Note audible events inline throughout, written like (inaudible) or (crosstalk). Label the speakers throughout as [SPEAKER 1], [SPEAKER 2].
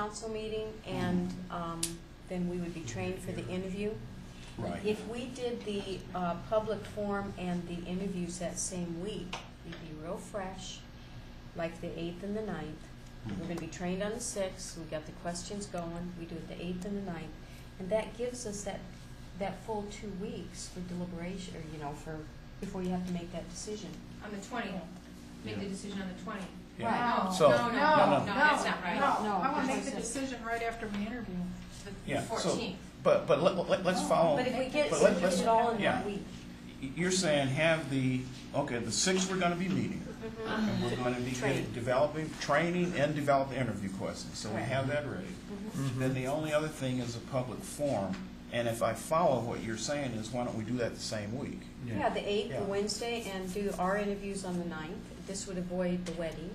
[SPEAKER 1] council meeting, and um, then we would be trained for the interview.
[SPEAKER 2] Right.
[SPEAKER 1] If we did the uh, public forum and the interviews that same week, we'd be real fresh, like the 8th and the 9th. We're going to be trained on the 6th, we got the questions going, we do it the 8th and the 9th. And that gives us that, that full two weeks for deliberation, or, you know, for, before you have to make that decision.
[SPEAKER 3] On the twentieth, make the decision on the twentieth.
[SPEAKER 2] Yeah.
[SPEAKER 1] Right.
[SPEAKER 3] Oh.
[SPEAKER 4] No,
[SPEAKER 2] So-
[SPEAKER 4] no, no, no,
[SPEAKER 3] that's not right.
[SPEAKER 4] No,
[SPEAKER 1] No,
[SPEAKER 4] I want to make
[SPEAKER 1] that's
[SPEAKER 4] the
[SPEAKER 1] not-
[SPEAKER 4] decision right after we interview.
[SPEAKER 2] Yeah, so,
[SPEAKER 3] The fourteenth.
[SPEAKER 2] but, but let, let- let's follow,
[SPEAKER 1] Oh, But if we get,
[SPEAKER 2] But
[SPEAKER 1] so
[SPEAKER 2] let-
[SPEAKER 1] we get
[SPEAKER 2] let's-
[SPEAKER 1] it all in
[SPEAKER 2] yeah.
[SPEAKER 1] one week.
[SPEAKER 2] Y- you're saying have the, okay, the six we're gonna be meeting. And we're gonna be getting,
[SPEAKER 1] Mm-hmm. Training.
[SPEAKER 2] developing, training and developing interview questions, so we
[SPEAKER 1] Correct.
[SPEAKER 2] have that ready. Then the only other thing is a public forum, and if I follow what you're saying is, why don't we do that the same week?
[SPEAKER 1] Yeah, the 8th,
[SPEAKER 2] Yeah.
[SPEAKER 1] the Wednesday, and do our interviews on the 9th. This would avoid the wedding,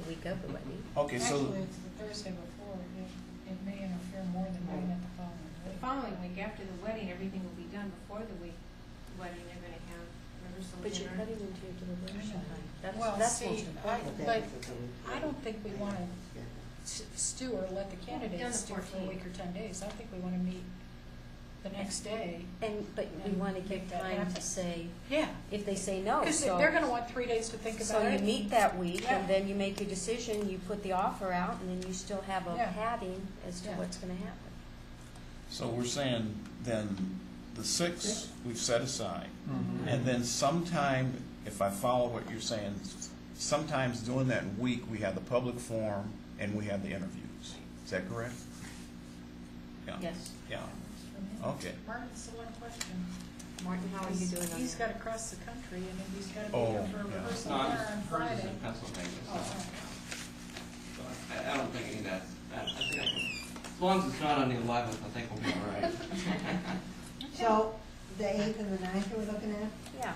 [SPEAKER 1] the week of the wedding.
[SPEAKER 2] Okay, so,
[SPEAKER 5] Actually, it's the Thursday before, it, it may interfere more than doing it the following
[SPEAKER 3] The
[SPEAKER 5] week.
[SPEAKER 3] following week, after the wedding, everything will be done before the week, the wedding, they're gonna have rehearsal
[SPEAKER 1] But you're
[SPEAKER 3] dinner.
[SPEAKER 1] cutting into your deliberation time. That's,
[SPEAKER 5] Well,
[SPEAKER 1] that's
[SPEAKER 5] see,
[SPEAKER 1] most
[SPEAKER 5] I,
[SPEAKER 1] important.
[SPEAKER 5] like, I don't think we want to stew or let the candidates stew
[SPEAKER 3] Done the
[SPEAKER 5] for a week or ten days. I think we want to meet the next day.
[SPEAKER 1] And, but we
[SPEAKER 5] And
[SPEAKER 1] want to
[SPEAKER 5] make
[SPEAKER 1] give
[SPEAKER 5] that
[SPEAKER 1] time to
[SPEAKER 5] happen.
[SPEAKER 1] say,
[SPEAKER 5] Yeah.
[SPEAKER 1] if they say no,
[SPEAKER 5] Because they're going to
[SPEAKER 1] so,
[SPEAKER 5] want three days to think
[SPEAKER 1] so
[SPEAKER 5] about
[SPEAKER 1] you
[SPEAKER 5] it.
[SPEAKER 1] meet that week,
[SPEAKER 5] Yeah.
[SPEAKER 1] and then you make your decision, you put the offer out, and then you still have a
[SPEAKER 5] Yeah.
[SPEAKER 1] padding as to
[SPEAKER 5] Yeah.
[SPEAKER 1] what's going to happen.
[SPEAKER 2] so we're saying then the six we've set aside.
[SPEAKER 5] Mhm.
[SPEAKER 2] And then sometime, if I follow what you're saying, sometimes during that week, we have the public forum and we have the interviews. Is that correct? Yeah.
[SPEAKER 1] Yes.
[SPEAKER 2] Yeah, okay.
[SPEAKER 5] Martin, so one question.
[SPEAKER 1] Martin, how are you doing on
[SPEAKER 5] He's
[SPEAKER 1] that?
[SPEAKER 5] got to cross the country and then he's got to be
[SPEAKER 2] Oh,
[SPEAKER 5] here for a
[SPEAKER 2] yeah.
[SPEAKER 5] rehearsal
[SPEAKER 6] No,
[SPEAKER 5] dinner
[SPEAKER 6] I'm
[SPEAKER 5] on
[SPEAKER 6] just, hers is
[SPEAKER 5] Friday.
[SPEAKER 6] in Pennsylvania, so,
[SPEAKER 5] Oh,
[SPEAKER 6] so I, I don't think any of that, I, I think I can, as long as it's not on the eleventh, I think we'll be
[SPEAKER 5] (laughs)
[SPEAKER 6] all right.
[SPEAKER 7] So, the eighth and the ninth are we looking at?
[SPEAKER 1] Yeah.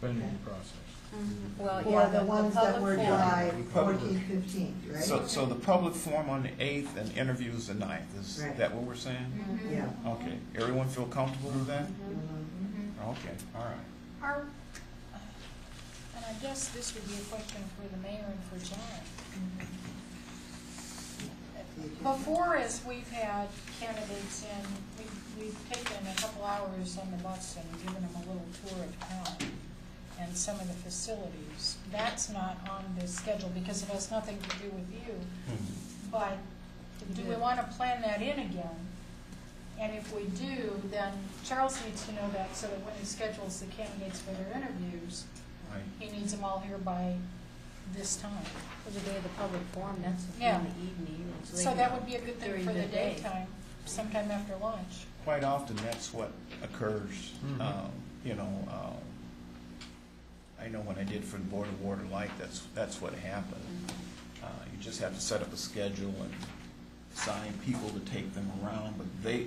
[SPEAKER 8] Planning process.
[SPEAKER 5] Mm-hmm.
[SPEAKER 3] Uh,
[SPEAKER 1] Well, yeah,
[SPEAKER 7] Or
[SPEAKER 1] the-
[SPEAKER 7] the
[SPEAKER 1] the
[SPEAKER 7] ones that
[SPEAKER 1] public
[SPEAKER 7] were
[SPEAKER 1] forum.
[SPEAKER 7] July
[SPEAKER 2] Public.
[SPEAKER 7] fourteenth, fifteenth, right?
[SPEAKER 2] So, so the public forum on the eighth and interviews the ninth, is
[SPEAKER 7] Right. Mm-hmm.
[SPEAKER 2] that what we're saying?
[SPEAKER 3] Mhm.
[SPEAKER 7] Yeah.
[SPEAKER 2] Okay, everyone feel comfortable with that?
[SPEAKER 7] Mhm.
[SPEAKER 3] Mhm.
[SPEAKER 2] Okay, all right.
[SPEAKER 5] Are, and I guess this would be a question for the mayor and for John. Before us, we've had candidates in, we've, we've taken a couple hours on the bus and given them a little tour of town and some of the facilities. That's not on the schedule because it has nothing to do with you. But do we want to plan that in again? And if we do, then Charles needs to know that so that when he schedules the candidates for their interviews,
[SPEAKER 2] Right.
[SPEAKER 5] he needs them all here by this time.
[SPEAKER 1] For the day of the public forum, that's in
[SPEAKER 5] Yeah.
[SPEAKER 1] the evening. and they
[SPEAKER 5] So that
[SPEAKER 1] can-
[SPEAKER 5] would be a good thing
[SPEAKER 1] During
[SPEAKER 5] for
[SPEAKER 1] the
[SPEAKER 5] the
[SPEAKER 1] day.
[SPEAKER 5] daytime, sometime after lunch.
[SPEAKER 2] Quite often, that's what occurs,
[SPEAKER 8] Mhm.
[SPEAKER 2] um, you know, um, I know when I did for the Board of Water Light, that's, that's what happened. Uh, You just have to set up a schedule and assign people to take them around, but they,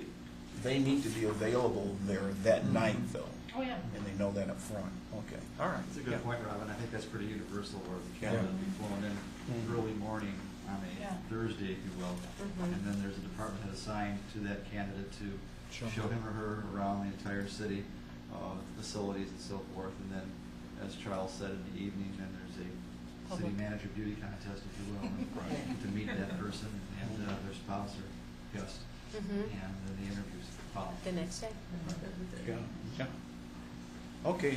[SPEAKER 2] they need to be available there that night, though,
[SPEAKER 5] Oh, yeah.
[SPEAKER 2] and they know that up front. Okay, Mm-hmm. all right.
[SPEAKER 9] That's a good point, Robin. I think that's pretty universal, where the candidate will be flown in
[SPEAKER 2] Mm.
[SPEAKER 9] early morning on
[SPEAKER 5] Yeah. Mm-hmm.
[SPEAKER 9] a Thursday, if you will.
[SPEAKER 1] Mhm.
[SPEAKER 9] And then there's a department head assigned to that candidate
[SPEAKER 8] Show
[SPEAKER 9] to
[SPEAKER 8] him.
[SPEAKER 9] show him or her around the entire city, uh, facilities and so forth. And then, as Charles said, in the evening, then there's a city
[SPEAKER 1] Public.
[SPEAKER 9] manager beauty contest, if you will,
[SPEAKER 5] (laughs)
[SPEAKER 2] Right.
[SPEAKER 9] and to meet that person and uh, their spouse or guest, and
[SPEAKER 5] Mm-hmm.
[SPEAKER 1] Mhm.
[SPEAKER 9] then the interviews follow.
[SPEAKER 1] The next day.
[SPEAKER 2] Yeah, yeah. Okay,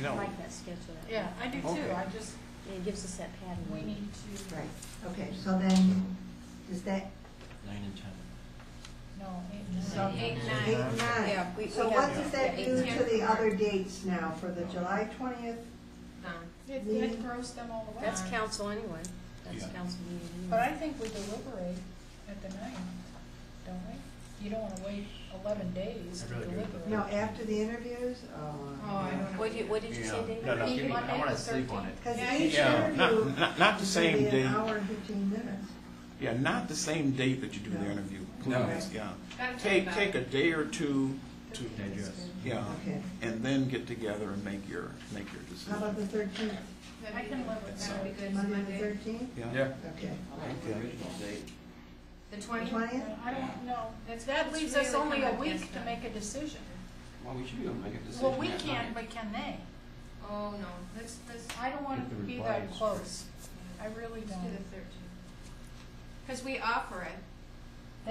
[SPEAKER 1] I
[SPEAKER 2] no,
[SPEAKER 1] like that schedule. that way.
[SPEAKER 5] Yeah, I do
[SPEAKER 2] Okay.
[SPEAKER 5] too. I just,
[SPEAKER 1] And it gives us that pattern.
[SPEAKER 5] we need to,
[SPEAKER 7] Right, okay, so then, is that
[SPEAKER 6] Nine and ten.
[SPEAKER 5] no, eight,
[SPEAKER 3] So
[SPEAKER 5] nine.
[SPEAKER 3] eight,
[SPEAKER 7] eight,
[SPEAKER 3] nine, Yeah, we-
[SPEAKER 7] nine? So
[SPEAKER 3] we
[SPEAKER 7] what
[SPEAKER 3] have-
[SPEAKER 7] does that
[SPEAKER 3] yeah,
[SPEAKER 7] do
[SPEAKER 3] eight,
[SPEAKER 7] to
[SPEAKER 3] ten.
[SPEAKER 7] the other dates now, for the July twentieth?
[SPEAKER 3] done.
[SPEAKER 5] It, it grows them all away.
[SPEAKER 1] That's council anyway. That's
[SPEAKER 2] Yeah.
[SPEAKER 1] council meeting. anyway.
[SPEAKER 5] uh, But I think we deliberate at the ninth, don't we? You don't want to wait eleven days to
[SPEAKER 8] I'd rather do it
[SPEAKER 5] deliberate.
[SPEAKER 7] No, after the interviews,
[SPEAKER 3] Oh, I
[SPEAKER 7] oh.
[SPEAKER 3] don't know.
[SPEAKER 1] What did you, what did you say,
[SPEAKER 9] Yeah.
[SPEAKER 1] David?
[SPEAKER 2] No, no,
[SPEAKER 9] give me- I
[SPEAKER 5] Monday
[SPEAKER 9] wanna
[SPEAKER 5] the
[SPEAKER 9] sleep on
[SPEAKER 5] 13th.
[SPEAKER 9] it.
[SPEAKER 7] Because
[SPEAKER 5] Yeah,
[SPEAKER 7] each
[SPEAKER 2] yeah,
[SPEAKER 7] interview
[SPEAKER 2] not,
[SPEAKER 7] is
[SPEAKER 2] not- not the
[SPEAKER 7] gonna
[SPEAKER 2] same
[SPEAKER 7] be an
[SPEAKER 2] day,
[SPEAKER 7] hour and fifteen minutes.
[SPEAKER 2] yeah, not the same date that you do the
[SPEAKER 7] No.
[SPEAKER 2] interview,
[SPEAKER 6] No.
[SPEAKER 2] please, yeah.
[SPEAKER 3] Gotta talk
[SPEAKER 2] Take,
[SPEAKER 3] about
[SPEAKER 2] take
[SPEAKER 3] it.
[SPEAKER 2] a day or two to
[SPEAKER 9] Digest.
[SPEAKER 2] Yeah,
[SPEAKER 7] Okay.
[SPEAKER 2] and then get together and make your, make your
[SPEAKER 7] How about
[SPEAKER 2] decision.
[SPEAKER 7] the thirteenth,
[SPEAKER 5] I
[SPEAKER 3] That'd be
[SPEAKER 5] can
[SPEAKER 3] good.
[SPEAKER 5] live with
[SPEAKER 3] That'd be
[SPEAKER 5] that.
[SPEAKER 3] good, It's
[SPEAKER 7] Monday the
[SPEAKER 3] Monday.
[SPEAKER 7] thirteenth?
[SPEAKER 8] Yeah.
[SPEAKER 7] Okay.
[SPEAKER 6] I like the original date.
[SPEAKER 3] The
[SPEAKER 7] The
[SPEAKER 3] twentieth?
[SPEAKER 7] twentieth?
[SPEAKER 5] I don't know,
[SPEAKER 3] That's-
[SPEAKER 5] that
[SPEAKER 3] that's
[SPEAKER 5] leaves us
[SPEAKER 3] really
[SPEAKER 5] only a
[SPEAKER 3] kind of
[SPEAKER 5] week
[SPEAKER 3] messed
[SPEAKER 5] to
[SPEAKER 3] up.
[SPEAKER 5] make a decision.
[SPEAKER 6] Well, we should be able to make a decision
[SPEAKER 5] Well, we
[SPEAKER 6] that
[SPEAKER 5] can,
[SPEAKER 6] night.
[SPEAKER 5] but can they?
[SPEAKER 3] Oh, no, let's, let's, let's
[SPEAKER 5] I don't want
[SPEAKER 9] If
[SPEAKER 5] to
[SPEAKER 9] the
[SPEAKER 5] be
[SPEAKER 9] reply
[SPEAKER 5] that
[SPEAKER 9] is
[SPEAKER 5] close, I really
[SPEAKER 3] do the
[SPEAKER 5] don't.
[SPEAKER 3] thirteenth. Because we offer it,